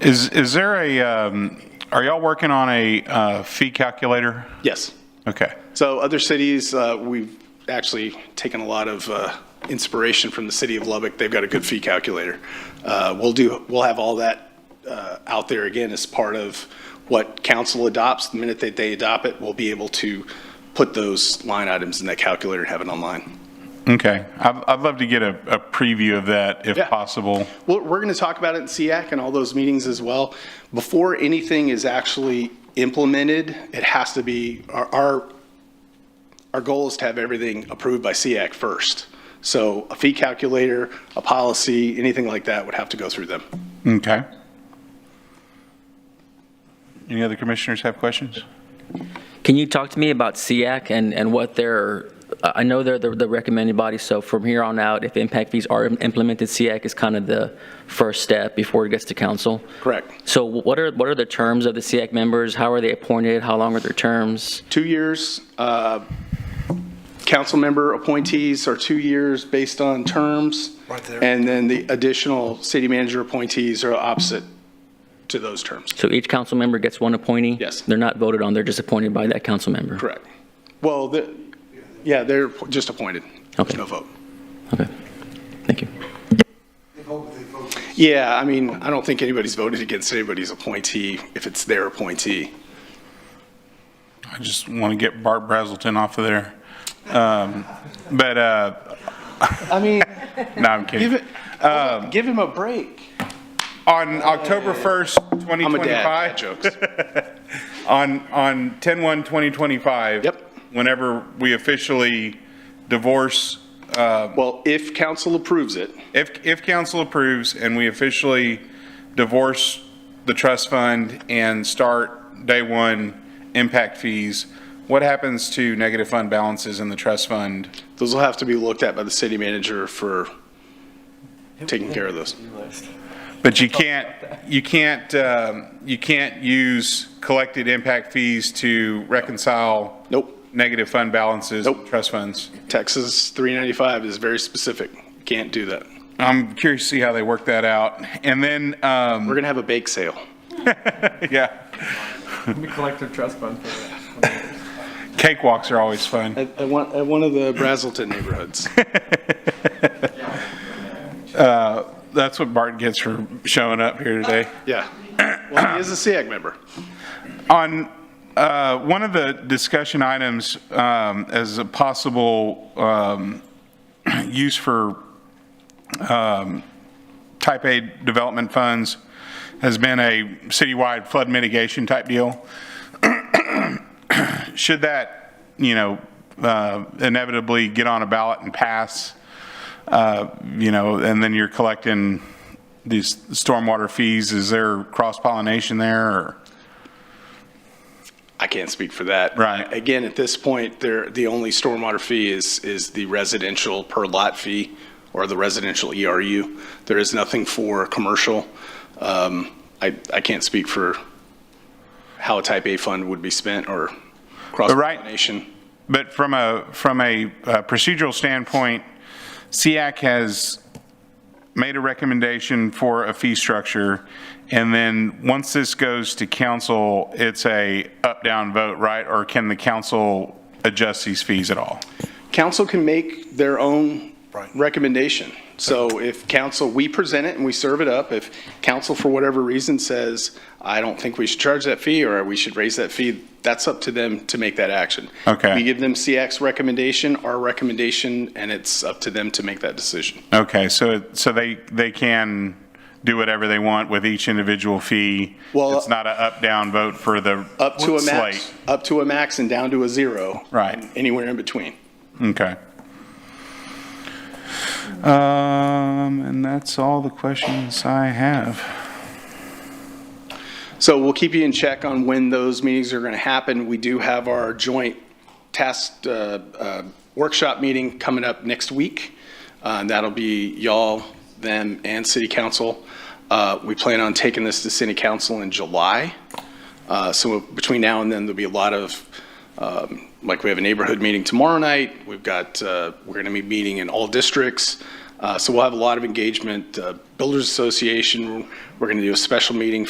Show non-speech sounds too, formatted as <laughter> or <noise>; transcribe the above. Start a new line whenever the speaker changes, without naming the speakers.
Is, is there a, um, are y'all working on a uh, fee calculator?
Yes.
Okay.
So other cities, uh, we've actually taken a lot of uh, inspiration from the city of Lubbock. They've got a good fee calculator. Uh, We'll do, we'll have all that uh, out there again as part of what council adopts. The minute that they adopt it, we'll be able to put those line items in that calculator and have it online.
Okay. I'd, I'd love to get a, a preview of that if
Yeah.
possible.
Well, we're going to talk about it in SEAC and all those meetings as well. Before anything is actually implemented, it has to be, our- our, our goal is to have everything approved by SEAC first. So a fee calculator, a policy, anything like that would have to go through them.
Okay. Any other commissioners have questions?
Can you talk to me about SEAC and, and what their, I know they're the the recommended body, so from here on out, if impact fees are implemented, SEAC is kind of the first step before it gets to council?
Correct.
So what are, what are the terms of the SEAC members? How are they appointed? How long are their terms?
Two years, uh, council member appointees are two years based on terms.
Right there.
And then the additional city manager appointees are opposite to those terms.
So each council member gets one appointee?
Yes.
They're not voted on, they're just appointed by that council member?
Correct. Well, the, yeah, they're just appointed. There's
Okay.
no vote.
Okay, thank you.
They vote, what they vote.
Yeah, I mean, I don't think anybody's voted against anybody's appointee if it's their appointee.
I just want to get Bart Brazelton off of there. Um, But, uh,
I mean,
no, I'm kidding.
give it, give him a break.
On October 1st,
I'm a
2025.
dad. Dad Jokes.
<laughs> On, on 10/1/2025.
Yep.
Whenever we officially divorce
Well, if council approves it,
If, if council approves and we officially divorce the trust fund and start day one impact fees, what happens to negative fund balances in the trust fund?
those will have to be looked at by the city manager for taking care of those.
But you can't, you can't, um, you can't use collected impact fees to reconcile
Nope.
negative fund balances, in
Nope.
trust funds.
Texas 395 is very specific. Can't do that.
I'm curious to see how they work that out. And then, um,
We're going to have a bake sale.
yeah,
We collective trust fund for that.
cakewalks are always fun.
At, at one, at one of the Brazelton neighborhoods.
That's what Bart gets for showing up here today.
<laughs> Yeah. Well, he is a SEAC member.
On uh, one of the discussion items um, as a possible um, <clears throat> use for um, type A development funds has been a citywide flood mitigation type deal. <clears throat> Should that, you know, uh, inevitably get on a ballot and pass, uh, you know, and then you're collecting these stormwater fees, is there cross pollination there or?
I can't speak for that.
Right.
Again, at this point, there, the only stormwater fee is, is the residential per lot fee or the residential ERU. There is nothing for commercial. Um, I, I can't speak for how a type A fund would be spent or
right-
cross-pollination.
But from a, from a uh, procedural standpoint, SEAC has made a recommendation for a fee structure, and then once this goes to council, it's a up-down vote, right? Or can the council adjust these fees at all?
Council can make their own
Right.
recommendation. So if council, we present it and we serve it up. If council, for whatever reason, says, I don't think we should charge that fee or we should raise that fee, that's up to them to make that action.
Okay.
We give them CX recommendation, our recommendation, and it's up to them to make that decision.
Okay, so, so they, they can do whatever they want with each individual fee?
Well-
It's not a up-down vote for the
Up to a max,
slate?
up to a max and down to a zero.
Right.
and Anywhere in between.
Okay. Um, and that's all the questions I have.
So we'll keep you in check on when those meetings are going to happen. We do have our joint task uh, uh, workshop meeting coming up next week. Uh, and That'll be y'all, them, and city council. Uh, We plan on taking this to city council in July. Uh, So between now and then, there'll be a lot of, um, like, we have a neighborhood meeting tomorrow night. We've got, uh, we're going to be meeting in all districts. Uh, So we'll have a lot of engagement. Uh, Builders Association, we're going to do a special meeting